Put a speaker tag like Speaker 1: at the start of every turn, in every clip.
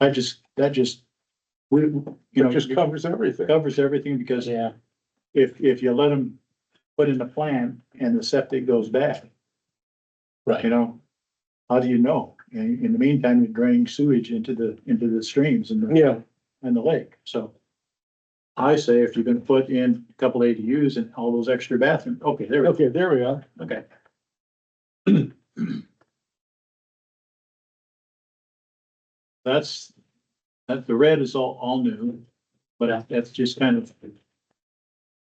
Speaker 1: I just, that just, we, you know,
Speaker 2: It just covers everything.
Speaker 1: covers everything because
Speaker 3: Yeah,
Speaker 1: if, if you let them put in the plan and the septic goes bad, you
Speaker 3: right.
Speaker 1: know, how do you know? And in the meantime, you're draining sewage into the, into the streams and the
Speaker 2: Yeah,
Speaker 1: and the lake, so. I say if you're gonna put in a couple ADUs and all those extra bathrooms, okay, there, we go.
Speaker 2: okay, there we are.
Speaker 1: okay. That's, that, the red is all, all new, but that's just kind of.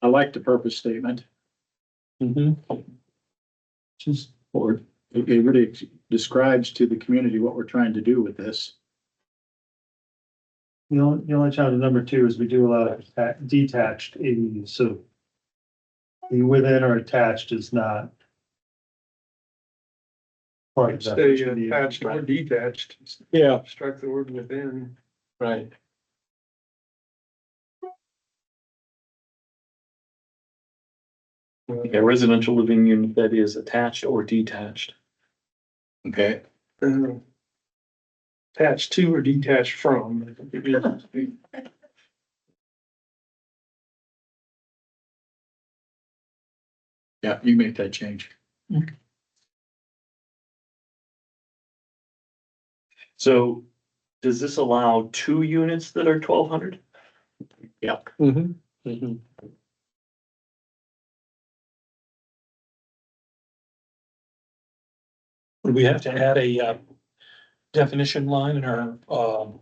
Speaker 1: I like the purpose statement,
Speaker 3: Just
Speaker 1: or it it really describes to the community what we're trying to do with this.
Speaker 4: The only, the only challenge with number two is we do allow atta- detached ADUs, so. The within or attached is not. Part of that.
Speaker 5: Stay attached or detached,
Speaker 2: Yeah,
Speaker 5: strike the word within.
Speaker 1: Right.
Speaker 3: a residential living unit that is attached or detached.
Speaker 1: Okay.
Speaker 5: uh, Attached to or detached from.
Speaker 1: Yeah, you make that change.
Speaker 3: So does this allow two units that are twelve hundred?
Speaker 1: Yep.
Speaker 2: mm-hmm,
Speaker 6: Would we have to add a uh, definition line in our, um,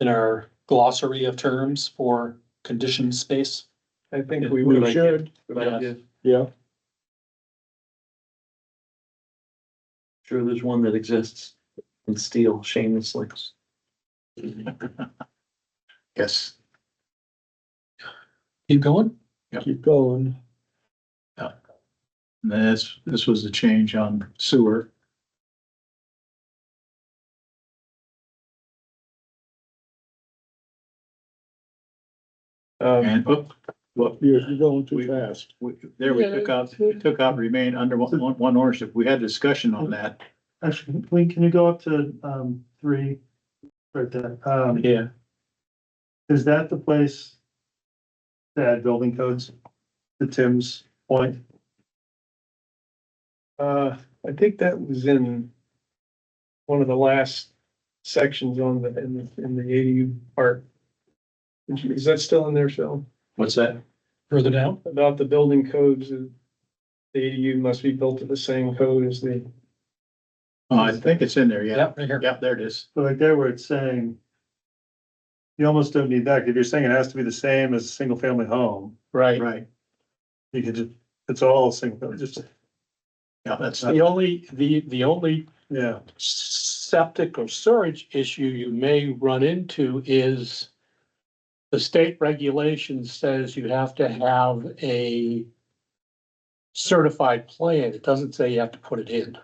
Speaker 6: in our glossary of terms for conditioned space?
Speaker 5: I think we
Speaker 2: we
Speaker 5: would.
Speaker 2: should, yeah.
Speaker 3: Sure, there's one that exists in steel shamelessly.
Speaker 1: Yes.
Speaker 6: Keep going?
Speaker 2: Keep going.
Speaker 1: And This, this was the change on sewer.
Speaker 5: Um,
Speaker 1: And, oh, well,
Speaker 2: You're, you're going too fast.
Speaker 1: we- there we took out, we took out remain under one, one- one ownership. We had discussion on that.
Speaker 4: Actually, can we- can you go up to, um, three? Right there, um,
Speaker 6: Yeah.
Speaker 4: is that the place? To add building codes? To Tim's point?
Speaker 5: Uh, I think that was in one of the last sections on the, in the, in the ADU part. Is that still in there, Phil?
Speaker 1: What's that?
Speaker 6: Further down?
Speaker 5: About the building codes, uh, the ADU must be built to the same code as the,
Speaker 1: Uh, I think it's in there, yeah.
Speaker 6: Yep, right here.
Speaker 1: Yeah, there it is.
Speaker 4: So like there where it's saying. You almost don't need that, if you're saying it has to be the same as a single family home,
Speaker 6: Right.
Speaker 1: Right.
Speaker 4: you could just, it's all single, just,
Speaker 1: Yeah, that's,
Speaker 6: The only, the, the only
Speaker 4: yeah.
Speaker 6: septic or storage issue you may run into is the state regulation says you have to have a certified plan. It doesn't say you have to put it in.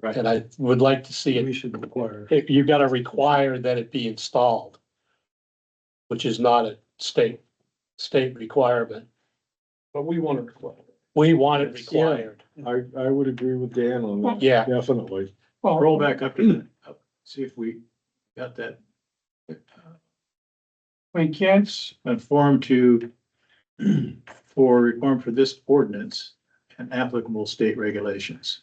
Speaker 1: Right.
Speaker 6: And I would like to see it,
Speaker 4: We should require.
Speaker 6: if you gotta require that it be installed, which is not a state, state requirement.
Speaker 5: but we want to require.
Speaker 6: We want it
Speaker 1: Yes, yeah.
Speaker 6: required.
Speaker 2: I, I would agree with Dan on that,
Speaker 6: Yeah,
Speaker 2: definitely.
Speaker 1: roll back up to, the- up, see if we got that. We can't. Conform to, for reform for this ordinance and applicable state regulations.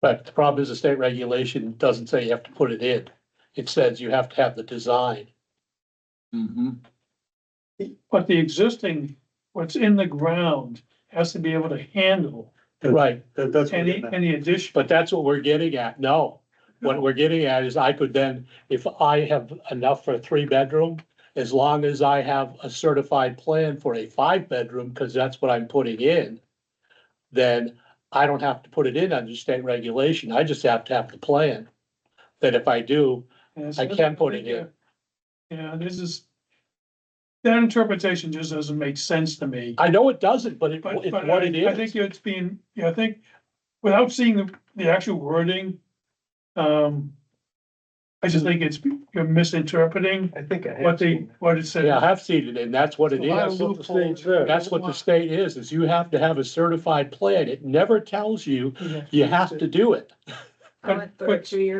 Speaker 6: but the problem is the state regulation doesn't say you have to put it in. It says you have to have the design.
Speaker 1: Mm-hmm.
Speaker 7: But the existing, what's in the ground has to be able to handle
Speaker 6: Right,
Speaker 4: That, that's. what
Speaker 7: any,
Speaker 4: we're gonna-
Speaker 7: any addition.
Speaker 6: but that's what we're getting at. No. What we're getting at is I could then, if I have enough for a three bedroom, as long as I have a certified plan for a five bedroom, because that's what I'm putting in, then I don't have to put it in under state regulation. I just have to have the plan. That if I do,
Speaker 7: And
Speaker 6: I can put it in.
Speaker 7: Yeah, this is, that interpretation just doesn't make sense to me.
Speaker 6: I know it doesn't, but it,
Speaker 7: But,
Speaker 6: it's
Speaker 7: but
Speaker 6: what it
Speaker 7: I, I think
Speaker 6: is.
Speaker 7: it's being, yeah, I think, without seeing the, the actual wording, um, I just think it's, you're misinterpreting
Speaker 5: I think I have.
Speaker 7: what
Speaker 5: seen
Speaker 7: they,
Speaker 5: that.
Speaker 7: what it says.
Speaker 6: Yeah, I have seen it and that's what it is.
Speaker 2: what the state said.
Speaker 6: That's what the state is, is you have to have a certified plan. It never tells you, you have to do it.
Speaker 7: But-
Speaker 8: I went through
Speaker 7: but-
Speaker 8: it two years